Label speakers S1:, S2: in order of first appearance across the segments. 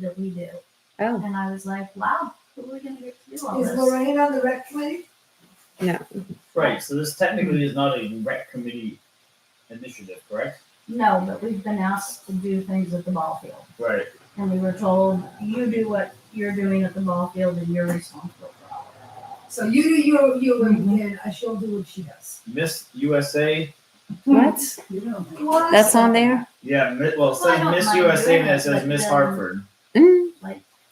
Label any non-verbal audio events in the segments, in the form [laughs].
S1: that we do.
S2: Oh,
S1: And I was like, wow, who are we gonna get to do all
S3: Is
S1: this?
S3: Lorraine on the rec committee?
S4: Right, so this technically is not a rec committee initiative, correct?
S1: No, but we've been asked to do things at the ball field.
S4: Right.
S1: And we were told, you do what you're doing at the ball field and you're responsible for all of
S3: So you do your, your,
S5: Mm-hmm.
S3: and I shall do what she does.
S4: Miss USA,
S2: what?
S1: it. Well,
S2: That's on there?
S4: yeah, mi- well, it
S1: Well, I
S4: says
S1: don't
S4: Miss
S1: mind
S4: USA
S1: doing
S4: and it
S1: it,
S4: says
S1: but um,
S4: Miss
S1: then-
S4: Hartford.
S2: Mm.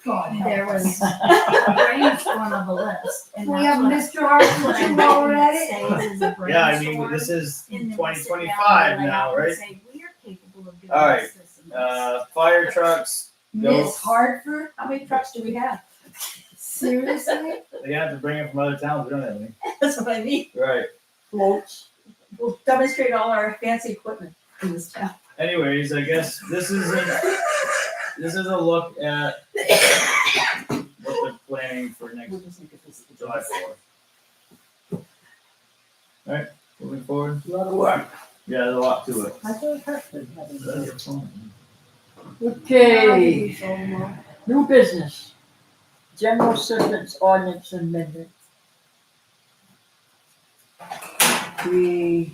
S3: God
S1: There [laughs]
S3: help
S1: was
S3: us.
S1: brainstorm of a list. and
S3: We
S1: that's
S3: have
S1: what-
S3: Mr. Hartford too already.
S4: [laughs] Yeah, I mean, this is twenty twenty-five now, right?
S1: We're capable of doing
S4: All right,
S1: this, this, and this.
S4: Uh, fire trucks,
S3: Miss
S4: Those-
S3: Hartford, how many trucks do we have? Seriously?
S4: they have to bring it from other towns, we don't have any.
S5: [laughs] That's what I mean.
S4: Right,
S5: We'll, we'll demonstrate all our fancy equipment in this town.
S4: anyways, I guess this is, a- this is a look at what they're planning for next
S5: We'll just make it this-
S4: July fourth. Alright, moving forward,
S5: A lot of work.
S4: yeah, there's a lot to it.
S5: I thought Hartford had
S4: Is that your phone?
S6: Okay, new business. General Servants Ordinance Amendment. We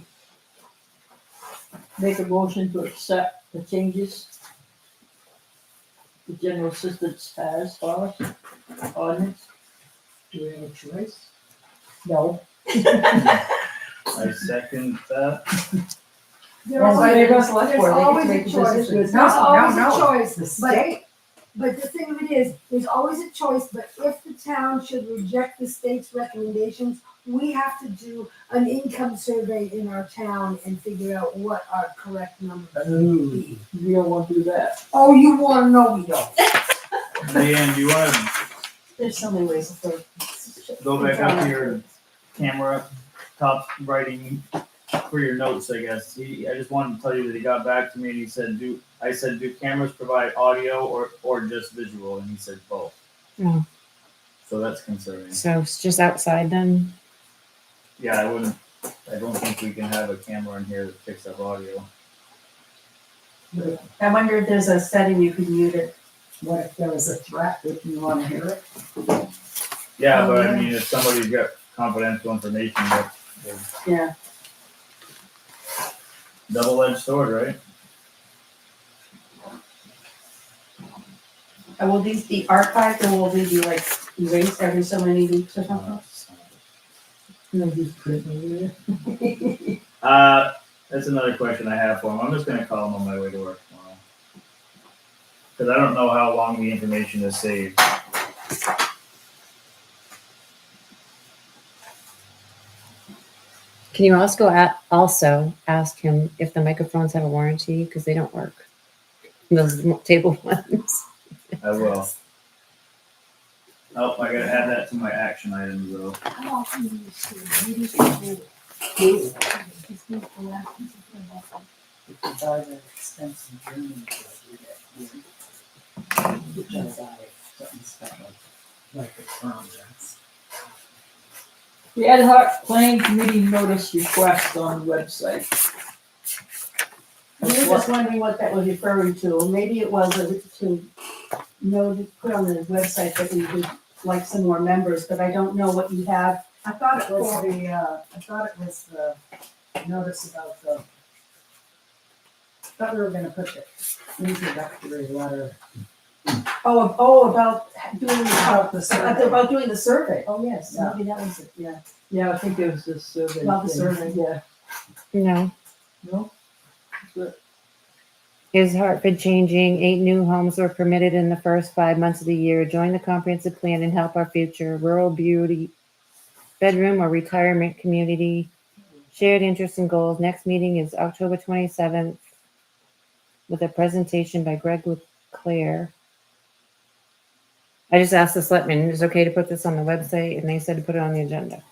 S6: make a motion to accept the changes the General Assistance has for us, ordinance. Do we have a choice? No.
S4: I second that,
S3: There is
S5: Well, they
S3: always-
S5: must let
S3: there's
S5: for it. They can
S3: always a
S5: make the
S3: choice,
S5: business
S3: there's
S5: decision. No,
S3: always
S5: no,
S3: a
S5: no.
S3: choice,
S5: The
S3: but, but the thing of it is, there's always a choice, but if the town should reject the state's recommendations, we have to do an income survey in our town and figure out what our correct number is.
S6: We don't want to do that.
S3: Oh, you wanna know we don't.
S4: Leanne, do you wanna
S5: There's so many ways to.
S4: go back up to your camera, top writing for your notes, I guess. He, I just wanted to tell you that he got back to me and he said, do, I said, do cameras provide audio or, or just visual? And he said both.
S2: Oh.
S4: So that's concerning.
S2: So it's just outside then?
S4: Yeah, I wouldn't, I don't think we can have a camera in here that picks up audio.
S5: I wonder if there's a setting you could mute it. What if there was a threat? Would you want to hear it?
S4: Yeah,
S5: Oh,
S4: but I
S5: yeah.
S4: mean, if somebody's got confidential information, that's a
S5: Yeah.
S4: double-edged sword, right?
S5: And will these be archived or will they be like erased every so many weeks or something?
S4: Uh, that's another question I have for him. I'm just gonna call him on my way to work tomorrow. Cause I don't know how long the information is saved.
S2: Can you also at, also ask him if the microphones have a warranty because they don't work. Those table [laughs] ones.
S4: I will. Oh, I gotta add that to my action items though.
S1: How often do you see videos of people? These people asking for help?
S6: The ad hoc planning committee notice request on website.
S5: We were just wondering what that was referring to, or maybe it was a- to know, to put on the website that we would like some more members, but I don't know what you have.
S7: I thought it was the, uh, I thought it was the notice about the, thought we were gonna put the introductory letter.
S5: Oh, ab- oh, about doing, uh,
S7: About the survey.
S5: about doing the survey, oh, yes,
S7: Yeah.
S5: maybe that was it, yeah.
S6: Yeah, I think it was the survey.
S5: About the
S6: thing.
S5: survey.
S6: Yeah,
S2: No.
S6: no? But
S2: Is Hartford changing? Eight new homes were permitted in the first five months of the year. Join the comprehensive plan and help our future. Rural beauty, bedroom or retirement community. Shared interests and goals. Next meeting is October 27th with a presentation by Greg Leclaire. I just asked the selectmen, is it okay to put this on the website? And they said to put it on the agenda.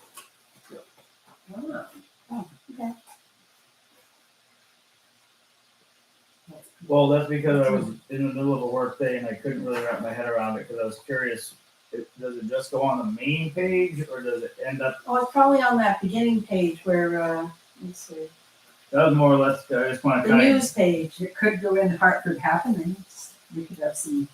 S4: Well, that's because I was in the middle of a work day and I couldn't really wrap my head around it, cause I was curious. It, does it just go on the main page or does it end up,
S5: Oh, it's probably on that beginning page where, uh, let's see,
S4: that was more or less, I just wanna
S5: the
S4: kinda.
S5: news page.
S7: It could go in Hartford happenings. We could have some